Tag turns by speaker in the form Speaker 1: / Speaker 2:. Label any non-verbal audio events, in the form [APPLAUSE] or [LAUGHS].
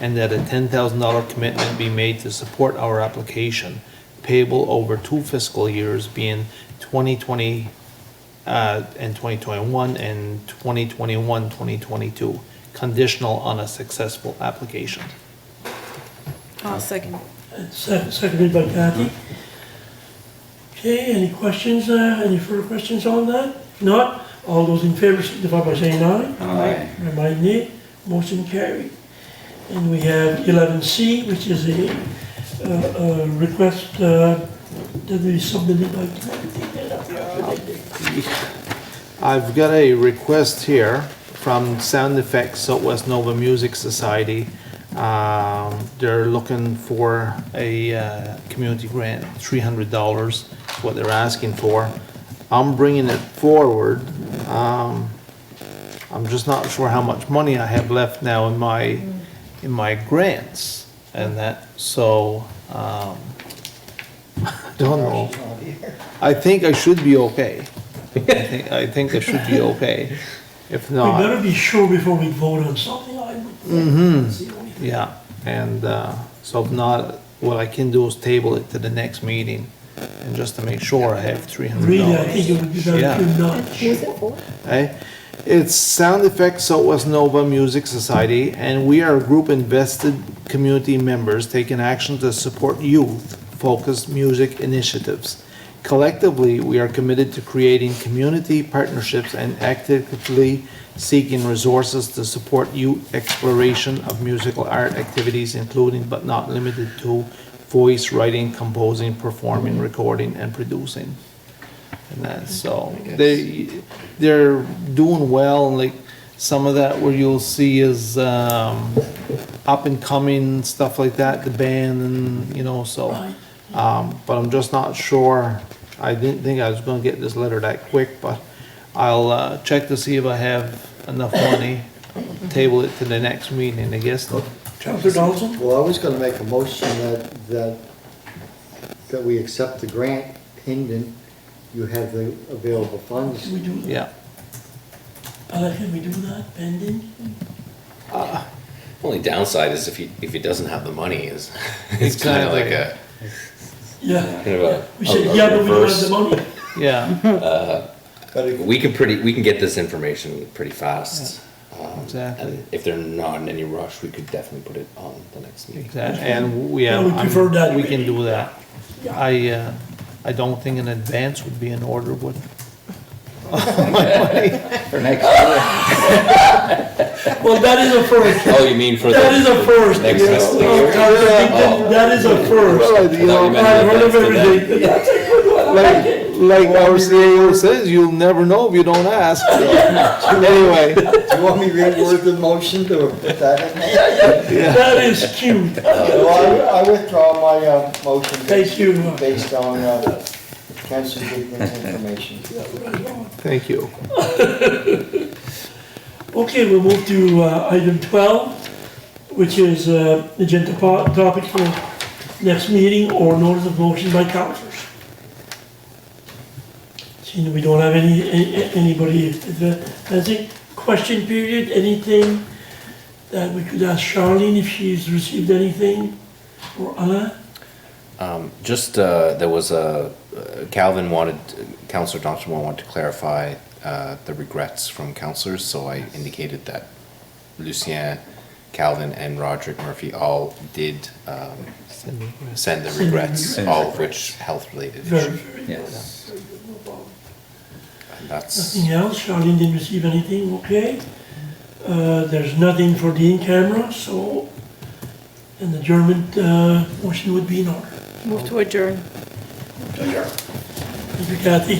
Speaker 1: and that a ten thousand dollar commitment be made to support our application, payable over two fiscal years being twenty twenty, uh, and twenty twenty-one and 2021-2022, conditional on a successful application.
Speaker 2: I'll second.
Speaker 3: Se- Seconded by Kathy. Okay, any questions, uh, any further questions on that? If not, all those in favor signify by saying aye.
Speaker 4: Aye.
Speaker 3: By my nay, motion carried. And we have eleven C, which is a, uh, uh, request, uh, that we submitted by.
Speaker 1: I've got a request here from Sound Effects Southwest Nova Music Society. Um, they're looking for a, uh, community grant, three hundred dollars, what they're asking for. I'm bringing it forward, um, I'm just not sure how much money I have left now in my, in my grants and that, so, um, [LAUGHS] I don't know. I think I should be okay. I think, I think I should be okay. If
Speaker 3: [LAUGHS] We
Speaker 1: not,
Speaker 3: better be sure before we vote on something, I would. That's the only thing.
Speaker 1: yeah, and, uh, so if not, what I can do is table it to the next meeting. And just to make sure I have three hundred
Speaker 3: Really, I
Speaker 1: dollars.
Speaker 3: think it would be better if you not.
Speaker 1: Eh? It's Sound Effects Southwest Nova Music Society, and we are a group invested community members taking action to support youth-focused music initiatives. Collectively, we are committed to creating community partnerships and actively seeking resources to support youth exploration of musical art activities, including but not limited to voice writing, composing, performing, recording, and producing and that. So they they're doing well, and like some of that where you'll see is um, up and coming stuff like that, the band, and you know. So, um, but I'm just not sure. I didn't think I was going to get this letter that quick, but I'll uh, check to see if I have enough money. Table it to the next meeting, I guess.
Speaker 3: Counselor Donaldson?
Speaker 5: Well, I was gonna make a motion that, that, that we accept the grant pending you have the available funds.
Speaker 3: Can we do that?
Speaker 1: Yeah.
Speaker 3: Uh, can we do that pending?
Speaker 4: Only downside is if he if he doesn't have the money is [LAUGHS] it's kind of like a
Speaker 3: Yeah.
Speaker 4: kind of a,
Speaker 3: We
Speaker 4: a-
Speaker 3: said,
Speaker 4: a
Speaker 3: yeah, but we don't have
Speaker 4: reverse.
Speaker 3: the money.
Speaker 1: Yeah,
Speaker 5: But if-
Speaker 4: We can pretty we can get this information pretty fast. Um,
Speaker 1: Exactly.
Speaker 4: And if they're not in any rush, we could definitely put it on the next meeting.
Speaker 1: exactly. And we, yeah,
Speaker 3: Yeah, we
Speaker 1: I'm-
Speaker 3: prefer that
Speaker 1: we can
Speaker 3: way.
Speaker 1: do that.
Speaker 3: Yeah.
Speaker 1: I, uh, I don't think an advance would be in order, would,
Speaker 5: for next year,
Speaker 3: Well, that is a first.
Speaker 4: [LAUGHS] Oh, you mean for
Speaker 3: That
Speaker 4: the,
Speaker 3: is a first.
Speaker 4: next
Speaker 3: Yes.
Speaker 4: fiscal
Speaker 3: Oh,
Speaker 4: year? Oh.
Speaker 3: that- That is a first.
Speaker 1: Well, you
Speaker 4: I thought you
Speaker 1: know,
Speaker 4: meant
Speaker 3: I heard
Speaker 4: that's
Speaker 3: of
Speaker 4: to them.
Speaker 3: everything. That's a good one. I like
Speaker 1: like,
Speaker 3: it.
Speaker 1: like our CEO says, you'll never know if you don't
Speaker 3: [LAUGHS]
Speaker 1: ask. Anyway,
Speaker 5: Do you want me to reword the motion to put that in there?
Speaker 3: That is cute.
Speaker 5: Well, I I withdraw my, uh, motion.
Speaker 3: Thank you.
Speaker 5: Based on, uh, Councilor Dickman's information.
Speaker 1: thank you.
Speaker 3: Okay, we'll move to uh, item 12, which is uh, agenda po- topic for next meeting or notice of motion by councilors. Seeing we don't have any, a- anybody advancing, question period, anything that we could ask Charlene if she's received anything, or Anna?
Speaker 4: Um, just uh, there was a uh, Calvin wanted Councillor Thompson wanted to clarify uh, the regrets from councillors, so I indicated that Lucien, Calvin, and Roderick Murphy all did um, send the regrets,
Speaker 3: Send
Speaker 4: all of which health related
Speaker 3: Very,
Speaker 4: issues.
Speaker 3: very
Speaker 6: Yes.
Speaker 4: And that's
Speaker 3: Nothing else, Charlene didn't receive anything, okay. Uh, There's nothing for the in-camera, so an adjournment uh, motion would be in order.
Speaker 2: Move to adjourn.
Speaker 3: Thank you, Kathy.